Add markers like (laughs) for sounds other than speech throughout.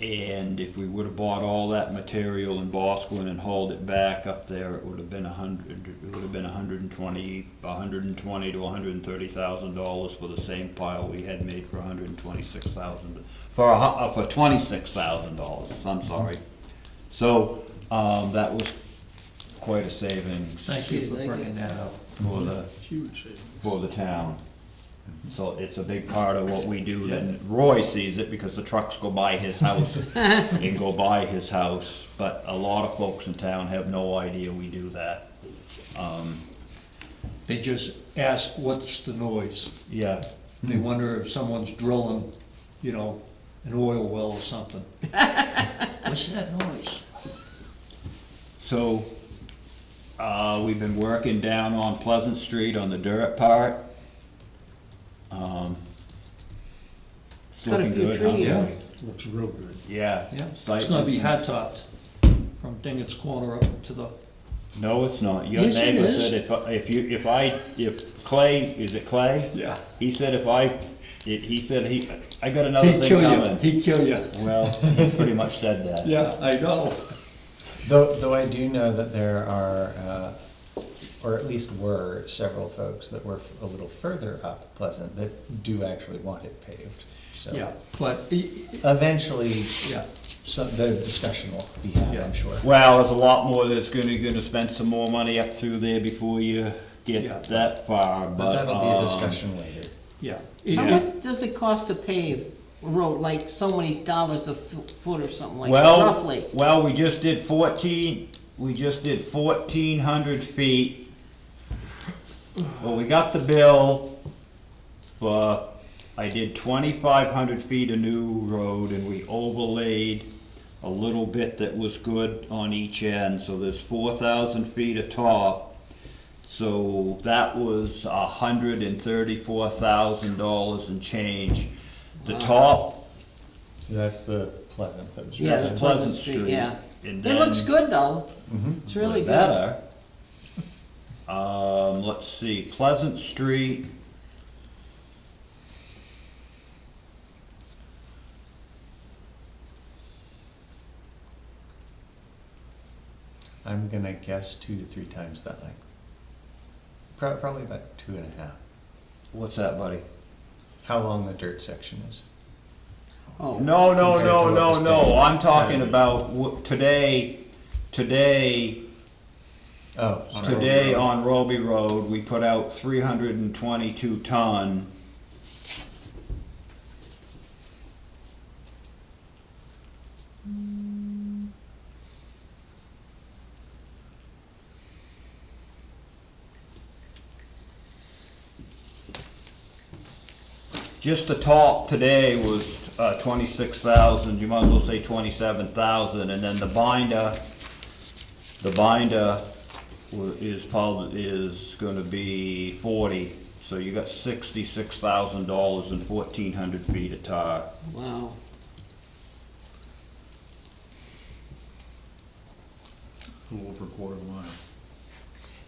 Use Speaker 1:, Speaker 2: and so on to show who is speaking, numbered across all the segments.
Speaker 1: And if we would've bought all that material in Bosquen and hauled it back up there, it would've been a hundred, it would've been a hundred and twenty, a hundred and twenty to a hundred and thirty thousand dollars for the same pile we had made for a hundred and twenty-six thousand, for a, hu- uh, for twenty-six thousand dollars, I'm sorry. So, um, that was quite a savings.
Speaker 2: Thank you for bringing that up.
Speaker 1: For the, for the town. So it's a big part of what we do, and Roy sees it because the trucks go by his house and go by his house, but a lot of folks in town have no idea we do that.
Speaker 2: They just ask, what's the noise?
Speaker 1: Yeah,
Speaker 2: They wonder if someone's drilling, you know, an oil well or (laughs) something. What's that noise?
Speaker 1: so, uh, we've been working down on Pleasant Street on the dirt part. Um, it's
Speaker 3: Cut a
Speaker 1: looking
Speaker 3: few
Speaker 1: good, huh?
Speaker 3: trees. Yeah.
Speaker 4: Looks real good.
Speaker 1: Yeah.
Speaker 2: Yeah,
Speaker 1: site
Speaker 2: it's gonna be
Speaker 1: is-
Speaker 2: hot topped from Dingett's Corner up to the,
Speaker 1: No, it's not. Your
Speaker 2: Yes, it
Speaker 1: neighbor
Speaker 2: is.
Speaker 1: said if, I- if you, if I, if Clay, is it Clay?
Speaker 2: Yeah.
Speaker 1: He said if I, it- he said he, I got another
Speaker 2: (laughs) he'd
Speaker 1: thing
Speaker 2: kill you,
Speaker 1: coming.
Speaker 2: he'd kill you.
Speaker 1: Well, he pretty much said that.
Speaker 2: Yeah, I know.
Speaker 4: Though, though I do know that there are, uh, or at least were, several folks that were f- a little further up Pleasant that do actually want it paved, so.
Speaker 2: Yeah, but, i- i-
Speaker 4: Eventually,
Speaker 2: yeah,
Speaker 4: so the discussion will be had,
Speaker 2: Yeah.
Speaker 4: I'm sure.
Speaker 1: Well, there's a lot more that's gonna, gonna spend some more money up through there before you
Speaker 2: Yeah.
Speaker 1: get that far, but,
Speaker 4: But that'll be a
Speaker 1: um,
Speaker 4: discussion later.
Speaker 2: yeah.
Speaker 3: How
Speaker 1: Yeah.
Speaker 3: much does it cost to pave a road, like so many dollars a fo- foot or something like that,
Speaker 1: Well,
Speaker 3: roughly?
Speaker 1: well, we just did fourteen, we just did fourteen hundred feet. Well, we got the bill, but I did twenty-five hundred feet of new road and we overlaid a little bit that was good on each end, so there's four thousand feet of top. So that was a hundred and thirty-four thousand dollars and change. The
Speaker 3: Uh-huh.
Speaker 1: top
Speaker 4: So that's the Pleasant that was.
Speaker 3: Yeah,
Speaker 1: that's
Speaker 3: the
Speaker 1: Pleasant
Speaker 3: Pleasant Street,
Speaker 1: Street,
Speaker 3: yeah.
Speaker 1: and
Speaker 3: It looks
Speaker 1: then- Mm-hmm.
Speaker 3: good though. It's really
Speaker 1: was
Speaker 3: good.
Speaker 1: better. Um, let's see, Pleasant Street.
Speaker 4: I'm gonna guess two to three times that length. Pro- Probably about two and a half.
Speaker 1: What's that, buddy?
Speaker 4: How long the dirt section is.
Speaker 3: Oh,
Speaker 1: No, no,
Speaker 4: Compared
Speaker 1: no,
Speaker 4: to what
Speaker 1: no,
Speaker 4: was
Speaker 1: no,
Speaker 4: paid.
Speaker 1: I'm talking about wh- today, today,
Speaker 4: Oh. sorry.
Speaker 1: today on Roby Road, we put out three hundred and twenty-two ton. Just the top today was uh, twenty-six thousand, you might as well say twenty-seven thousand, and then the binder, the binder wa- is probably, is gonna be forty, so you got sixty-six thousand dollars and fourteen hundred feet of tar.
Speaker 3: wow.
Speaker 5: little over a quarter of a mile.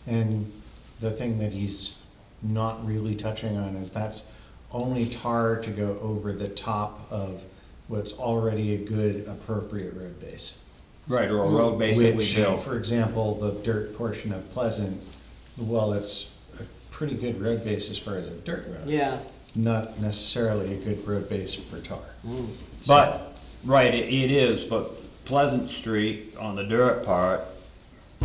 Speaker 4: And the thing that he's not really touching on is that's only tar to go over the top of what's already a good appropriate road base.
Speaker 1: Right, or a road base that we
Speaker 4: Which,
Speaker 1: built.
Speaker 4: for example, the dirt portion of Pleasant, well, it's a pretty good road base as far as a dirt road.
Speaker 3: Yeah,
Speaker 4: It's not necessarily a good road base for tar.
Speaker 3: Mm.
Speaker 1: But, right, it, it is, but Pleasant Street on the dirt part,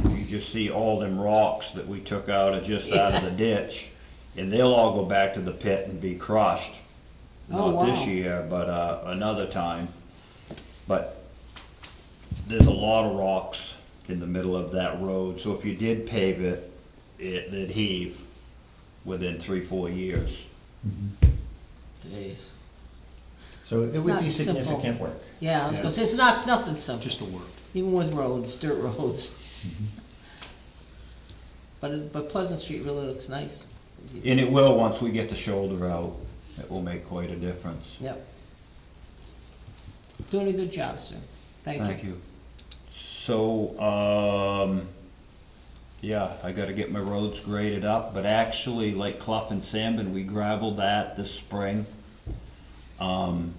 Speaker 1: you just see all them rocks that we took out of, just out of the ditch. And they'll all go back to the pit and be crushed.
Speaker 3: Oh,
Speaker 1: Not this
Speaker 3: wow.
Speaker 1: year, but, uh, another time. But there's a lot of rocks in the middle of that road, so if you did pave it, it, it'd heave within three, four years.
Speaker 3: Jeez.
Speaker 4: So it
Speaker 3: It's
Speaker 4: would
Speaker 3: not
Speaker 4: be
Speaker 3: simple.
Speaker 4: significant work.
Speaker 3: yeah, I was gonna say, it's not, nothing simple,
Speaker 5: Just a word.
Speaker 3: even with roads, dirt (laughs) roads.
Speaker 1: Mm-hmm.
Speaker 3: But, it- but Pleasant Street really looks nice.
Speaker 1: And it will, once we get the shoulder out, it will make quite a difference.
Speaker 3: Yep. Doing a good job, sir. Thank you.
Speaker 1: Thank you. So, um, yeah, I gotta get my roads graded up, but actually, like Clough and Sandman, we gravelled that this spring. Um,